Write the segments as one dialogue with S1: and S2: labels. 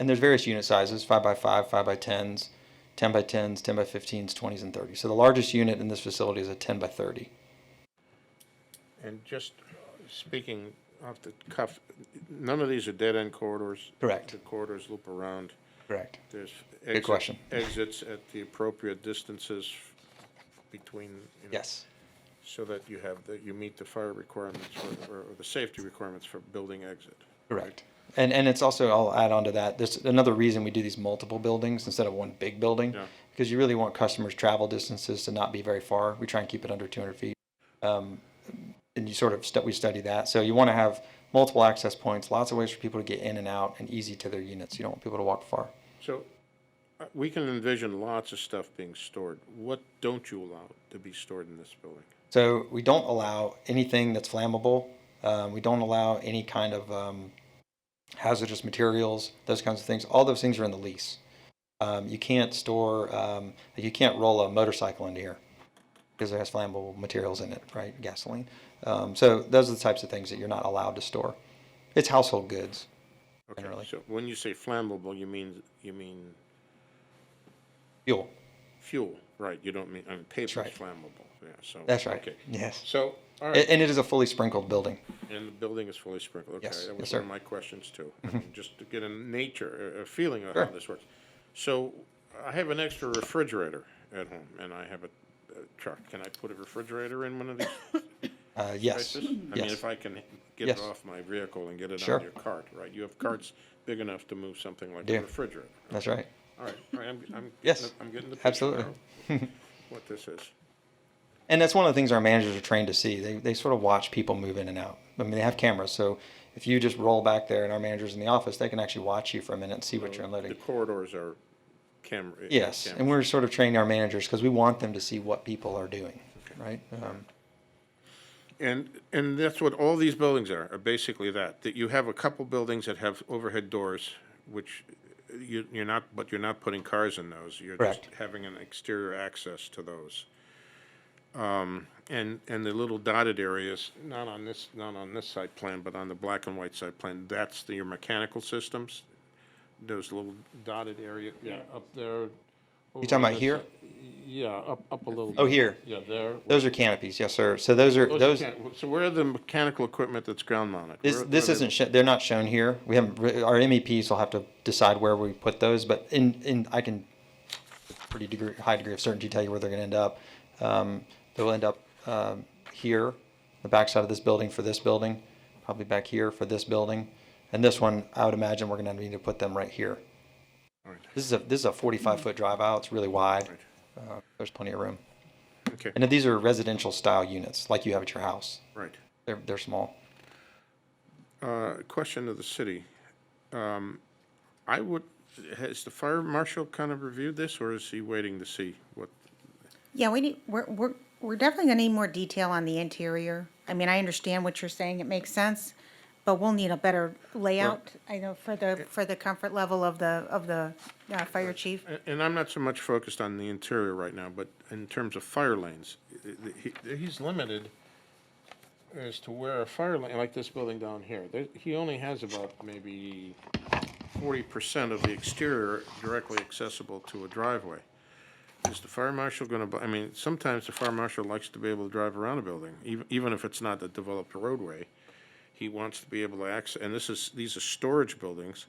S1: and there's various unit sizes: five by five, five by tens, ten by tens, ten by fifteens, twenties, and thirties. So the largest unit in this facility is a ten by thirty.
S2: And just speaking off the cuff, none of these are dead-end corridors?
S1: Correct.
S2: The corridors loop around,
S1: Correct.
S2: there's. exit-
S1: question.
S2: Exits at the appropriate distances between. you know,
S1: Yes.
S2: So that you have, that you meet the fire requirements or, or the safety requirements for building exit.
S1: Correct. And, and it's also, I'll add on to that, there's another reason we do these multiple buildings instead of one big building.
S2: Yeah.
S1: Because you really want customers' travel distances to not be very far. We try and keep it under two hundred feet. Um, and you sort of, stu- we study that. So you want to have multiple access points, lots of ways for people to get in and out and easy to their units. You don't want people to walk far.
S2: So, uh, we can envision lots of stuff being stored. What don't you allow to be stored in this building?
S1: So we don't allow anything that's flammable. Um, we don't allow any kind of um, hazardous materials, those kinds of things. All those things are in the lease. Um, you can't store, um, you can't roll a motorcycle into here because it has flammable materials in it, right? Gasoline. Um, so those are the types of things that you're not allowed to store. It's household goods.
S2: Okay,
S1: Generally.
S2: So, when you say flammable, you mean, you mean
S1: Fuel.
S2: fuel, right? You don't mean, I mean, paper's
S1: right.
S2: flammable, yeah, so.
S1: That's right.
S2: okay.
S1: Yes.
S2: So, all
S1: A-
S2: right,
S1: And it is a fully sprinkled building.
S2: and the building is fully sprinkled, okay,
S1: Yes,
S2: that
S1: yes,
S2: was
S1: sir. Mm-hmm.
S2: one of my questions too. I mean, Just to get a nature, a, a feeling of how
S1: Sure.
S2: this works. So, I have an extra refrigerator at home, and I have a, a truck, can I put a refrigerator in one of these
S1: Uh, yes.
S2: places? I mean,
S1: Yes.
S2: if I can get
S1: Yes.
S2: it off my vehicle and get it
S1: Sure. Mm-hmm.
S2: on your cart, right? You have carts big enough to move something like
S1: Do.
S2: a refrigerator.
S1: That's right.
S2: All right, all right, I'm, I'm.
S1: Yes,
S2: getting the- I'm getting the picture
S1: absolutely.
S2: now, what this is.
S1: And that's one of the things our managers are trained to see. They, they sort of watch people move in and out. I mean, they have cameras, so if you just roll back there and our manager's in the office, they can actually watch you for a minute and see what you're
S2: The
S1: unloading.
S2: corridors are uh, camera.
S1: Yes, and we're sort of training our managers because we want them to see what people are doing, right? Um,
S2: And, and that's what all these buildings are, are basically that, that you have a couple buildings that have overhead doors, which you, you're not, but you're not putting cars in those. You're just
S1: Correct.
S2: having an exterior access to those. Um, and, and the little dotted areas, not on this, not on this side plan, but on the black and white side plan, that's the, your mechanical systems. Those little dotted area, yeah, up there. You
S1: talking about here?
S2: Yeah, up, up a little.
S1: Oh,
S2: bit.
S1: here.
S2: Yeah, there.
S1: those are canopies, yes, sir. So those are
S2: Those
S1: those.
S2: mechan- So where are the mechanical equipment that's ground mounted?
S1: This
S2: Where-
S1: this
S2: where are they-
S1: isn't sho- they're not shown here. We haven't re- our MEPs will have to decide where we put those, but in in I can with pretty degree high degree of certainty tell you where they're going to end up. Um, they'll end up um, here, the backside of this building for this building, probably back here for this building, and this one I would imagine we're going to need to put them right here.
S2: All right.
S1: This is a this is a 45 foot drive out. It's really wide. Uh, there's plenty of room,
S2: Okay,
S1: and these are residential style units like you have at your house.
S2: right.
S1: They're they're small.
S2: Uh, Question of the city. Um, I would, has the fire marshal kind of reviewed this, or is he waiting to see what?
S3: Yeah, we need, we're, we're, we're definitely gonna need more detail on the interior. I mean, I understand what you're saying, it makes sense, but we'll need a better layout, I know, for the, for the comfort level of the, of the, uh, fire chief.
S2: a- And I'm not so much focused on the interior right now, but in terms of fire lanes, i- i- he- he's limited as to where a fire lane, like this building down here, there- he only has about maybe 40% of the exterior directly accessible to a driveway. Is the fire marshal going to, I mean, sometimes the fire marshal likes to be able to drive around a building, even, even if it's not a developed roadway. He wants to be able to access, and this is, these are storage buildings.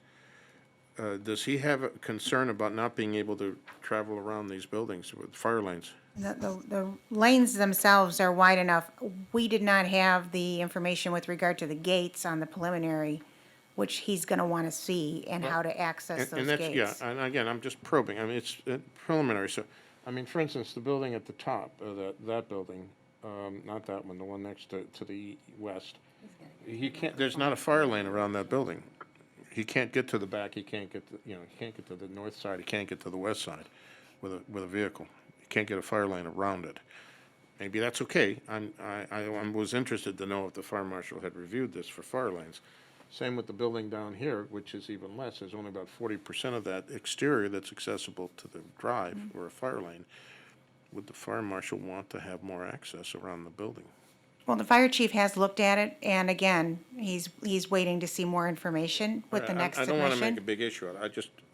S2: Uh, Does he have a concern about not being able to travel around these buildings with fire lanes?
S3: The, the- the lanes themselves are wide enough. We did not have the information with regard to the gates on the preliminary, which he's gonna wanna see and how to
S2: And-
S3: access those
S2: And that's, yeah,
S3: gates.
S2: and again, I'm just probing, I mean, it's uh, preliminary, so, I mean, for instance, the building at the top, uh, that, that building, um, not that one, the one next to, to the west, he can't, there's not a fire lane around that building. He can't get to the back, he can't get, to you know, he can't get to the north side, he can't get to the west side with a, with a vehicle. He can't get a fire lane around it. Maybe that's okay. I'm, I, I I was interested to know if the fire marshal had reviewed this for fire lanes. Same with the building down here, which is even less. There's only about forty percent of that exterior that's accessible to the drive or a fire lane. Would the fire marshal want to have more access around the building?
S3: Well, the fire chief has looked at it, and again, he's, he's waiting to see more information with the
S2: I-
S3: next
S2: I don't want to make a
S3: submission.
S2: big issue out of it. I just,